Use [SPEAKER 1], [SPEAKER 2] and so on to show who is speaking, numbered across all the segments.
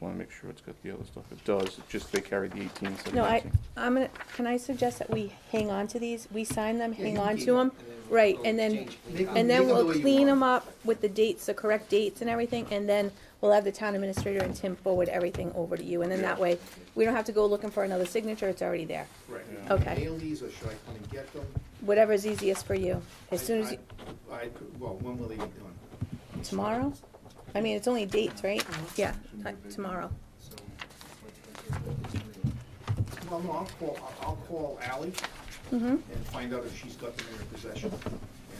[SPEAKER 1] Want to make sure it's got the other stuff. It does, it's just they carry the 18, 17.
[SPEAKER 2] No, I, I'm gonna, can I suggest that we hang on to these, we sign them,
[SPEAKER 3] Yeah,
[SPEAKER 2] hang
[SPEAKER 3] you
[SPEAKER 2] on
[SPEAKER 3] keep
[SPEAKER 2] to
[SPEAKER 3] it,
[SPEAKER 2] them?
[SPEAKER 3] and then we'll
[SPEAKER 2] Right,
[SPEAKER 3] go
[SPEAKER 2] and then,
[SPEAKER 3] change
[SPEAKER 4] Make 'em-
[SPEAKER 2] and
[SPEAKER 4] make
[SPEAKER 2] then
[SPEAKER 4] 'em the
[SPEAKER 2] we'll
[SPEAKER 4] way you
[SPEAKER 2] clean
[SPEAKER 4] want.
[SPEAKER 2] them up with the dates, the correct dates and everything, and then we'll have the town administrator and Tim forward everything over to you, and then that way, we don't have to go looking for another signature, it's already there.
[SPEAKER 4] Right.
[SPEAKER 1] Yeah.
[SPEAKER 2] Okay.
[SPEAKER 4] Mail these, or should I come and get them?
[SPEAKER 2] Whatever's easiest for you, as soon as,
[SPEAKER 4] I-
[SPEAKER 2] you-
[SPEAKER 4] I, I could- well, when will they be done?
[SPEAKER 2] tomorrow? I mean, it's only dates, right? Yeah, uh, tomorrow.
[SPEAKER 4] So, Well, no, I'll call, I'll- I'll call Ally
[SPEAKER 2] Mm-hmm,
[SPEAKER 4] and find out if she's got them in her possession.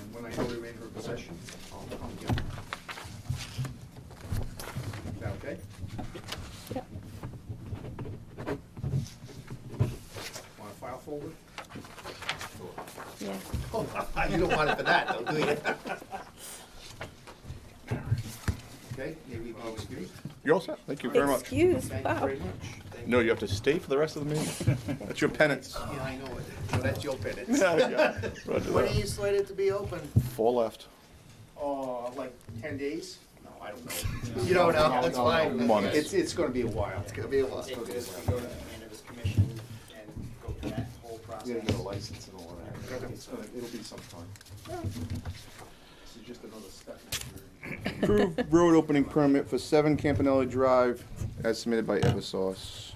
[SPEAKER 4] And when I know they're in her possession, I'll come get them. Is that okay?
[SPEAKER 2] yep,
[SPEAKER 4] Want a file folder?
[SPEAKER 2] yeah.
[SPEAKER 4] Oh, You don't want it for that, though, do you? Okay, maybe I'll excuse.
[SPEAKER 1] You're all set, thank you very much.
[SPEAKER 2] Excuse,
[SPEAKER 4] Thank you
[SPEAKER 2] wow.
[SPEAKER 4] very much. Thank
[SPEAKER 1] No, you have to stay for the rest of the meeting. That's your penance.
[SPEAKER 4] Yeah, I know it. So that's your penance.
[SPEAKER 1] Yeah, yeah. Roger
[SPEAKER 3] When are you
[SPEAKER 1] that.
[SPEAKER 3] slated to be open?
[SPEAKER 1] Four left.
[SPEAKER 4] Oh, like ten days? No, I don't know. You don't know, that's fine.
[SPEAKER 1] Months.
[SPEAKER 4] It's, it's gonna be a while.
[SPEAKER 3] It's gonna be a while. Take this, we go to the cannabis commission and go through that whole process.
[SPEAKER 4] You gotta get a license and all that. It's gonna- It'll be some time. This is just another step. in the journey.
[SPEAKER 1] Approved road opening permit for seven Campanelli Drive as submitted by Eversource.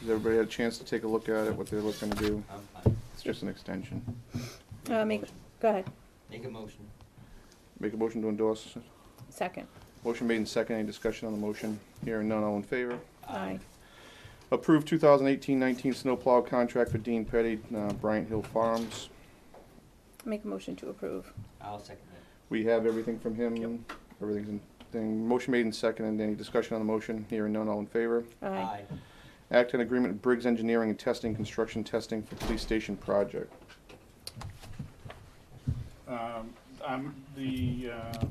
[SPEAKER 1] Has everybody had a chance to take a look at it, what they're looking to do? It's just an extension.
[SPEAKER 2] Uh, make, go ahead,
[SPEAKER 5] Make a motion.
[SPEAKER 1] Make a motion to endorse.
[SPEAKER 2] second,
[SPEAKER 1] Motion made in second. Any discussion on the motion? Hearing none, all in favor?
[SPEAKER 2] aye.
[SPEAKER 1] Approve 2018-19 snowplow contract for Dean Petty, uh, Bryant Hill Farms.
[SPEAKER 2] Make a motion to approve,
[SPEAKER 5] I'll second that.
[SPEAKER 1] We have everything from him. Everything's in, thing. Motion made in second. And any discussion on the motion? Hearing none, all in favor?
[SPEAKER 2] aye.
[SPEAKER 1] Act on agreement with Briggs Engineering and Testing, construction testing for police station project.
[SPEAKER 6] Um, I'm, the, uh,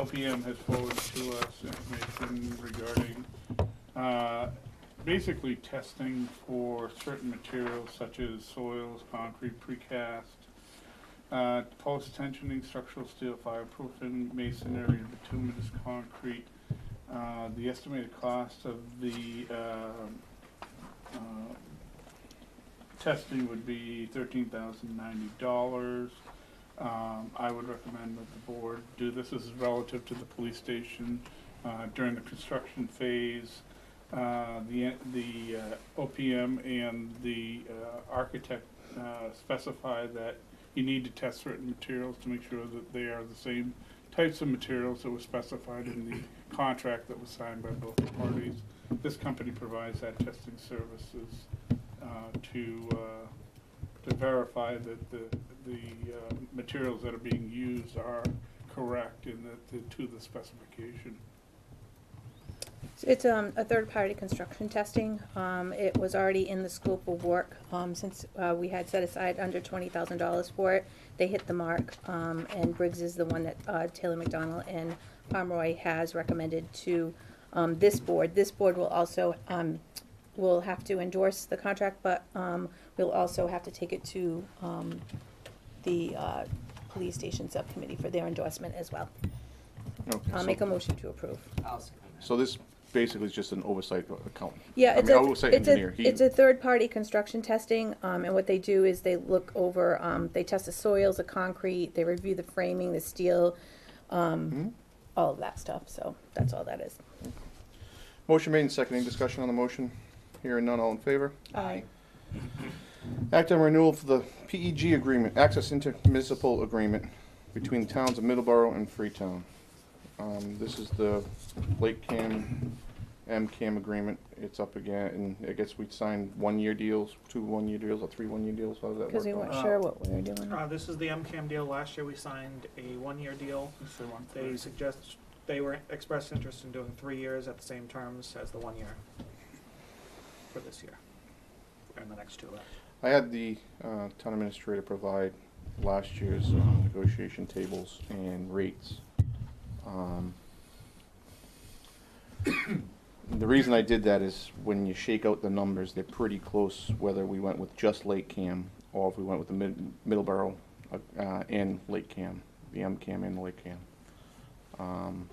[SPEAKER 6] OPM has forwarded to us information regarding, uh, basically testing for certain materials such as soils, concrete, precast, uh, post-tensioning, structural steel, fireproofing, masonry, bituminous concrete. Uh, the estimated cost of the, uh, uh, testing would be thirteen thousand ninety dollars. Um, I would recommend that the board do this, this is relative to the police station, uh, during the construction phase. Uh, the, the uh, OPM and the, uh, architect, uh, specify that you need to test certain materials to make sure that they are the same types of materials that were specified in the contract that was signed by both parties. This company provides that testing services uh, to, uh, to verify that the, the uh, materials that are being used are correct and that they're to the specification.
[SPEAKER 2] So It's um, a third-party construction testing. Um, It was already in the scope of work um, since uh, we had set aside under $20,000 for it. They hit the mark, um, and Briggs is the one that uh, Taylor McDonald and Pomeroy has recommended to um, this board. This board will also, um, will have to endorse the contract, but um, we'll also have to take it to um, the uh, police station subcommittee for their endorsement as well.
[SPEAKER 1] Okay,
[SPEAKER 2] I'll
[SPEAKER 1] so-
[SPEAKER 2] make a motion to approve.
[SPEAKER 5] I'll second that.
[SPEAKER 1] So this basically is just an oversight account.
[SPEAKER 2] Yeah,
[SPEAKER 1] I
[SPEAKER 2] it's
[SPEAKER 1] mean,
[SPEAKER 2] a,
[SPEAKER 1] I will say
[SPEAKER 2] it's
[SPEAKER 1] engineer,
[SPEAKER 2] a,
[SPEAKER 1] he-
[SPEAKER 2] it's a third-party construction testing, um, and what they do is they look over, um, they test the soils, the concrete, they review the framing, the steel,
[SPEAKER 1] Mhm.
[SPEAKER 2] um, all of that stuff, so that's all that is.
[SPEAKER 1] Motion made and second. Any discussion on the motion? Hearing none, all in favor?
[SPEAKER 2] Aye.
[SPEAKER 1] Act on renewal for the PEG agreement, access intermunicipal agreement between towns of Middleborough and Freetown. Um, this is the Lake Cam, MCAM agreement. It's up again, and I guess we signed one-year deals, two one-year deals, or three one-year deals. How does that work?
[SPEAKER 2] Because Um, we
[SPEAKER 1] out?
[SPEAKER 2] weren't
[SPEAKER 7] Uh,
[SPEAKER 2] sure what we were doing.
[SPEAKER 7] Uh, this is the MCAM deal. Last year, we signed a one-year deal.
[SPEAKER 6] If they want to-
[SPEAKER 7] They suggest, they were expressed interest in doing three years at the same terms as the one year for this year, and the next two. after.
[SPEAKER 1] I had the uh, town administrator provide last year's uh, negotiation tables and rates. Um, The reason I did that is when you shake out the numbers, they're pretty close, whether we went with just Lake Cam or if we went with the Mid- Middleborough uh, uh, and Lake Cam, the M Cam and Lake Cam. Um,